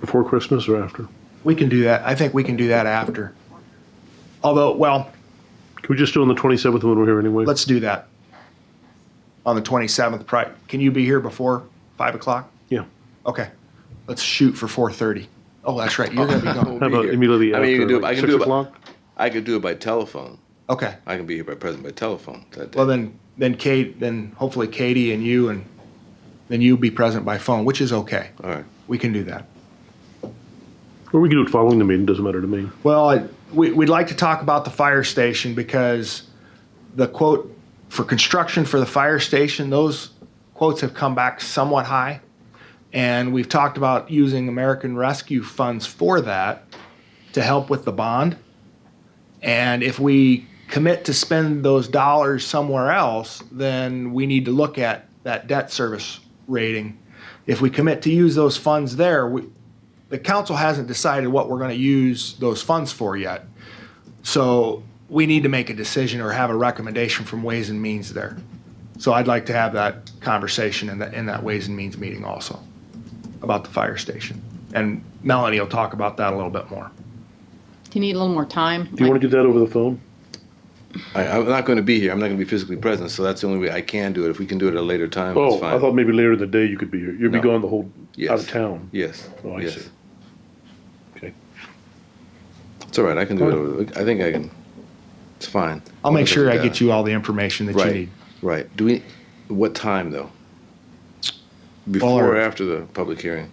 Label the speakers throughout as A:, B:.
A: Before Christmas or after?
B: We can do that. I think we can do that after. Although, well,
A: Can we just do it on the 27th when we're here anyway?
B: let's do that. On the 27th, pri- can you be here before 5 o'clock?
A: Yeah.
B: Okay, let's shoot for 4:30. Oh, that's right, you're gonna be gone.
A: How about
C: here.
A: immediately
C: I
A: after?
C: mean, you can do it-
A: like
C: I can
A: six
C: do it by-
A: o'clock?
C: I could do it by telephone.
B: Okay,
C: I can be here by present by telephone that day.
B: well then, then Kate, then hopefully Katie and you and then you be present by phone, which is okay.
C: All right.
B: We can do that.
A: Or we can do it following the meeting, doesn't matter to me.
B: Well, I- we, we'd like to talk about the fire station because the quote for construction for the fire station, those quotes have come back somewhat high. And we've talked about using American Rescue funds for that to help with the bond. And if we commit to spend those dollars somewhere else, then we need to look at that debt service rating. If we commit to use those funds there, we, the council hasn't decided what we're going to use those funds for yet. So we need to make a decision or have a recommendation from Ways and Means there. So I'd like to have that conversation in that, in that Ways and Means meeting also about the fire station. And Melanie will talk about that a little bit more.
D: Do you need a little more time?
A: Do you want to do that over the phone?
C: I, I'm not going to be here. I'm not going to be physically present, so that's the only way I can do it. If we can do it at a later time,
A: Oh,
C: it's fine.
A: I thought maybe later in the day you could be here. You'd be
C: No.
A: gone the whole,
C: Yes.
A: out of town.
C: Yes.
A: Oh, I
C: yes.
A: see. Okay.
C: It's all right. I can do it. Over, I think I can. It's fine.
B: I'll make sure I get
C: you.
B: you all the information that you
C: Right.
B: need.
C: Right. Do we? What time though? Before or
B: Or-
C: after the public hearing?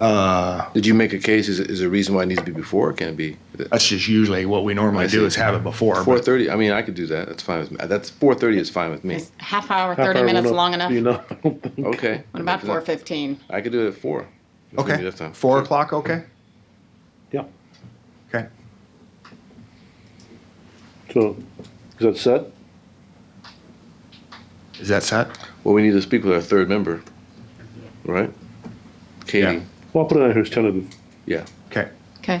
C: Uh. Did you make a case? Is, is there a reason why it needs to be before? Or can it be?
B: That's just usually what we normally
C: I
B: do
C: see.
B: is have it before.
C: Four
B: but-
C: thirty. I mean, I could do that. That's fine with me. That's four thirty is fine with me.
D: Is half hour,
A: Half
D: 30
A: hour
D: minutes
A: went up,
D: long enough?
A: You know, I don't think-
C: Okay.
D: What about
C: Is that-
D: 4:15?
C: I could do it at four. If we need
B: Okay,
C: enough time.
B: four
C: Sure.
B: o'clock, okay?
A: yeah.
B: Okay.
A: So, is that set?
B: Is that set?
C: Well, we need to speak with our third member, right? Katie.
A: Well, I'll put it on here as tentative.
C: Yeah.
B: Okay.
D: Okay.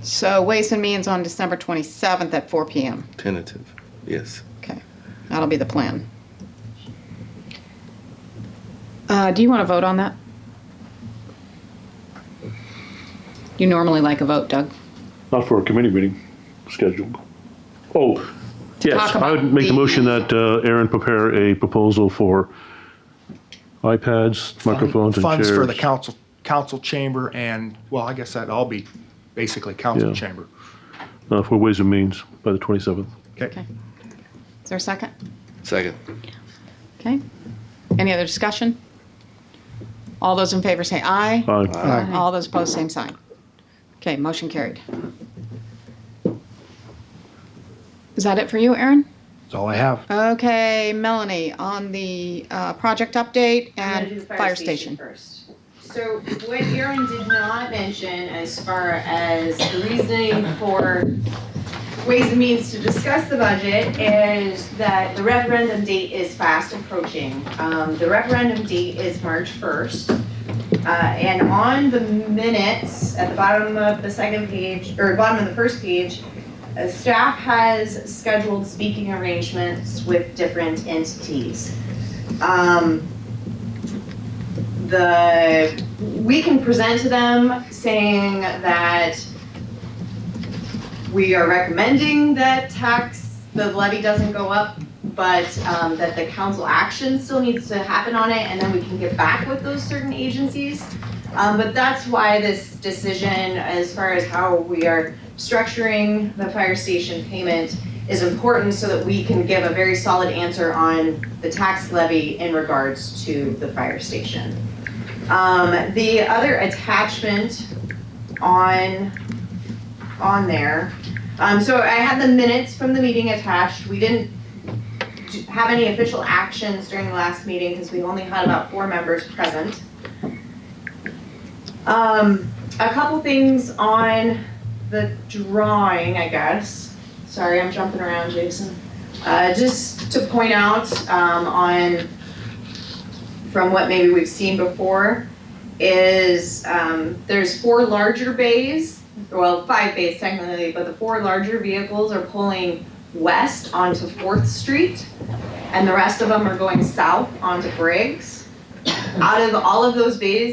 D: So Ways and Means on December 27th at 4 PM.
C: Tentative. Yes.
D: Okay. That'll be the plan. Uh, do you want to vote on that? You normally like a vote, Doug.
A: Not for a committee meeting scheduled. Oh, yes,
D: talk
A: I would
D: about
A: make the
D: the-
A: motion that uh, Aaron prepare a proposal for iPads, microphones, and chairs.
B: Funds for the council, council chamber and, well, I guess that'd all be basically council
A: Yeah.
B: chamber.
A: uh, For Ways and Means by the 27th.
B: Okay.
D: Okay. Is there a second?
C: Second.
D: Okay. Any other discussion? All those in favor say aye.
A: Aye.
D: All those opposed, same sign. Okay, motion carried. Is that it for you, Aaron?
B: That's all I have.
D: Okay, Melanie, on the uh, project update
E: I'm gonna do
D: and
E: the
D: fire station.
E: first. So what Aaron did not mention as far as the reasoning for Ways and Means to discuss the budget is that the referendum date is fast approaching. Um, the referendum date is March first. Uh, and on the minutes, at the bottom of the second page, or bottom of the first page, uh, staff has scheduled speaking arrangements with different entities. Um, the, we can present to them saying that we are recommending that tax, the levy doesn't go up, but um, that the council action still needs to happen on it, and then we can get back with those certain agencies. Um, But that's why this decision, as far as how we are structuring the fire station payment, is important so that we can give a very solid answer on the tax levy in regards to the fire station. Um, the other attachment on, on there, um, so I had the minutes from the meeting attached. We didn't d- have any official actions during the last meeting because we only had about four members present. Um, a couple things on the drawing, I guess. Sorry, I'm jumping around, Jason. Uh, just to point out, um, on from what maybe we've seen before is um, there's four larger bays, well, five bays technically, but the four larger vehicles are pulling west onto Fourth Street, and the rest of them are going south onto Briggs. Out of all of those bays,